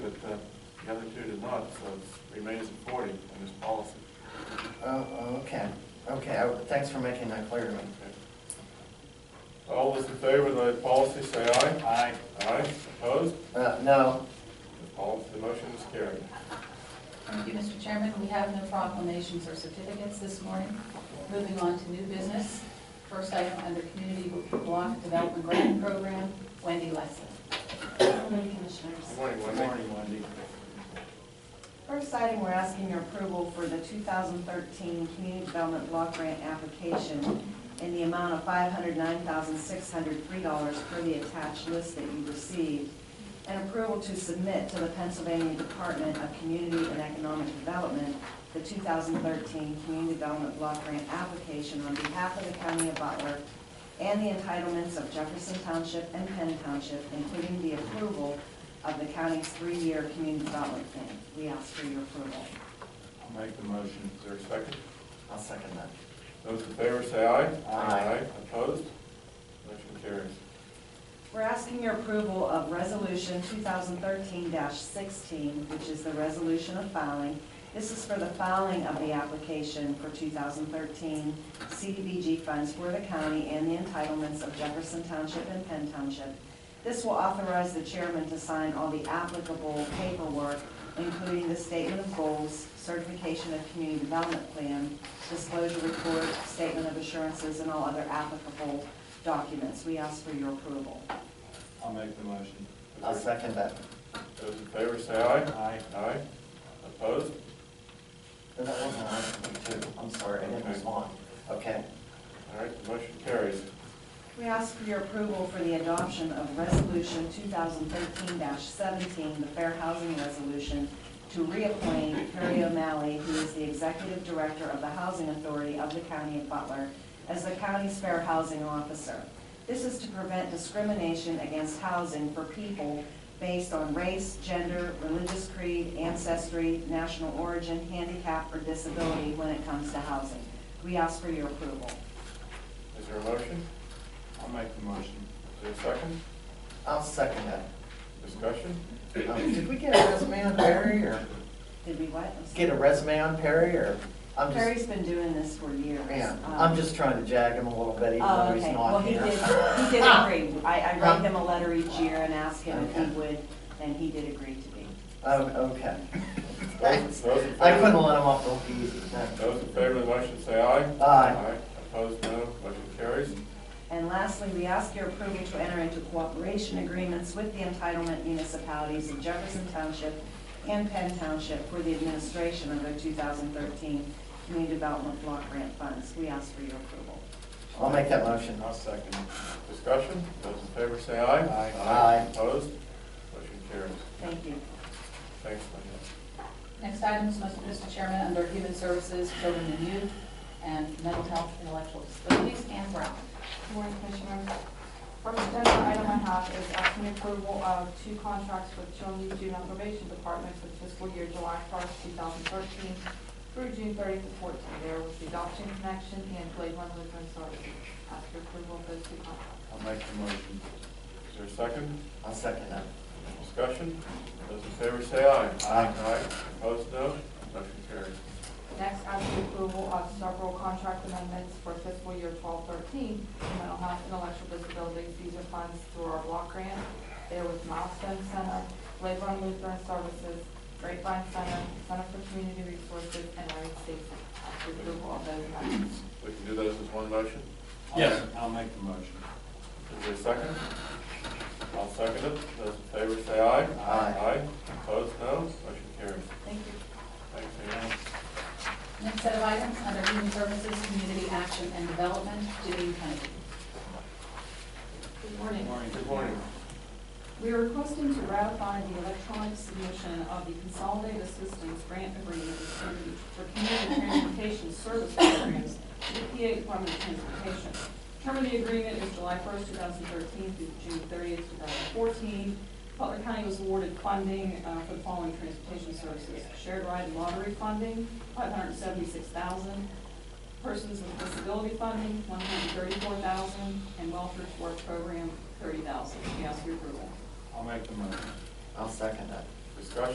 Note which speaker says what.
Speaker 1: uh, The other two did not, so it remains at forty in this policy.
Speaker 2: Oh, oh, okay, okay, I- thanks for making that clear to me.
Speaker 1: Okay. All those in favor of the policy, say aye.
Speaker 3: Aye.
Speaker 1: Aye, opposed?
Speaker 2: Uh, no,
Speaker 1: The policy, the motion is carried.
Speaker 4: Thank you, Mr. Chairman. We have no proclamations or certificates this morning. Moving on to new business. First item under Community Block Development Grant Program, Wendy Leslie.
Speaker 5: Morning, Commissioners.
Speaker 1: Good morning,
Speaker 3: Good
Speaker 1: Wendy.
Speaker 3: morning, Wendy.
Speaker 5: First item, we're asking your approval for the 2013 Community Development Block Grant application in the amount of $509,603 for the attached list that you received, and approval to submit to the Pennsylvania Department of Community and Economic Development the 2013 Community Development Block Grant application on behalf of the County of Butler and the entitlements of Jefferson Township and Penn Township, including the approval of the county's three-year community development plan. We ask for your approval.
Speaker 1: I'll make the motion. Is there a second?
Speaker 2: I'll second that.
Speaker 1: Those in favor, say aye.
Speaker 2: Aye.
Speaker 1: Opposed? Motion carries.
Speaker 5: We're asking your approval of Resolution 2013-16, which is the resolution of filing. This is for the filing of the application for 2013 CDBG funds for the county and the entitlements of Jefferson Township and Penn Township. This will authorize the chairman to sign all the applicable paperwork, including the statement of goals, certification of community development plan, disclosure report, statement of assurances, and all other applicable documents. We ask for your approval.
Speaker 3: I'll make the motion.
Speaker 2: I'll second that.
Speaker 1: Those in favor, say aye.
Speaker 3: Aye.
Speaker 1: Aye. Opposed?
Speaker 2: No, That wasn't on for me too, I'm sorry, I didn't respond. Okay,
Speaker 1: All right, the motion carries.
Speaker 5: We ask for your approval for the adoption of Resolution 2013-17, the Fair Housing Resolution, to reappoint Perry O'Malley, who is the Executive Director of the Housing Authority of the County of Butler, as the county's fair housing officer. This is to prevent discrimination against housing for people based on race, gender, religious creed, ancestry, national origin, handicap, or disability when it comes to housing. We ask for your approval.
Speaker 1: Is there a motion?
Speaker 3: I'll make the motion.
Speaker 1: Is there a second?
Speaker 2: I'll second that.
Speaker 1: Discussion?
Speaker 2: Um, Did we get a resume on Perry or
Speaker 5: Did we what? I'm sorry.
Speaker 2: get a resume on Perry or? I'm just-
Speaker 5: Perry's been doing this for years.
Speaker 2: Yeah,
Speaker 5: Um,
Speaker 2: I'm just trying to jag him a little bit even
Speaker 5: Oh,
Speaker 2: though he's
Speaker 5: okay, well,
Speaker 2: not
Speaker 5: he
Speaker 2: here. Um,
Speaker 5: did, he did agree. I, I write him a letter each year and ask him if he
Speaker 2: Okay.
Speaker 5: would, and he did agree to be.
Speaker 2: Oh, okay.
Speaker 1: Those- those in
Speaker 2: I
Speaker 1: favor-
Speaker 2: couldn't let him off the hook easy. no.
Speaker 1: Those in favor of the motion, say aye.
Speaker 2: Aye.
Speaker 1: Opposed, no. Motion carries.
Speaker 5: And lastly, we ask your approval to enter into cooperation agreements with the entitlement municipalities of Jefferson Township and Penn Township for the administration of their 2013 Community Development Block Grant Funds. We ask for your approval.
Speaker 2: I'll make that motion.
Speaker 3: I'll second it.
Speaker 1: Discussion? Those in favor, say aye.
Speaker 3: Aye.
Speaker 2: Aye.
Speaker 1: Opposed? Motion carries.
Speaker 5: Thank you.
Speaker 1: Thanks, Linda.
Speaker 4: Next item is Mr. Chairman, under Human Services, Children and Youth, and Mental Health, Intellectual Disabilities, and Brown.
Speaker 6: Good Morning, Commissioners. First agenda item I have is asking approval of two contracts with Children and Juvenile Probation Department for fiscal year July 1st, 2013 through June 30th to 14. There was the Adoption Connection and Blade One Lutheran Services. Ask your approval of those two contracts.
Speaker 3: I'll make the motion.
Speaker 1: Is there a second?
Speaker 2: I'll second that.
Speaker 1: Discussion? Those in favor, say aye.
Speaker 3: Aye.
Speaker 1: Aye. Opposed, no. Motion carries.
Speaker 6: Next, asking approval of several contract amendments for fiscal year 1213 mental health, intellectual disabilities. These are funds through our block grant. There was Milestone Center, Leyland Lutheran Services, Grapevine Center, Center for Community Resources, and Area State. Ask your approval of those amendments.
Speaker 1: We can do those as one motion.
Speaker 3: I'll-
Speaker 1: Yes.
Speaker 3: I'll make the motion.
Speaker 1: Is there a second? I'll second it. Those in favor, say aye.
Speaker 2: Aye.
Speaker 1: Aye. Opposed, no. Motion carries.
Speaker 6: Thank you.
Speaker 1: Thanks, Leanne.
Speaker 4: Next set of items under Human Services, Community Action and Development, Janine Kennedy.
Speaker 6: Good morning.
Speaker 1: Good morning.
Speaker 6: We are requesting to ratify the electronic submission of the Consolidated Assistance Grant Agreement for Community Transportation Service Programs to the PA Department of Transportation. Term of the agreement is July 1st, 2013 through June 30th, 2014. Butler County was awarded funding uh, for the following transportation services. Shared ride lottery funding, 576000 Persons with disability funding, one hundred thirty-four thousand, and welfare to work program, thirty thousand. We ask your approval.
Speaker 3: I'll make the motion.
Speaker 2: I'll second that.
Speaker 1: Discussion?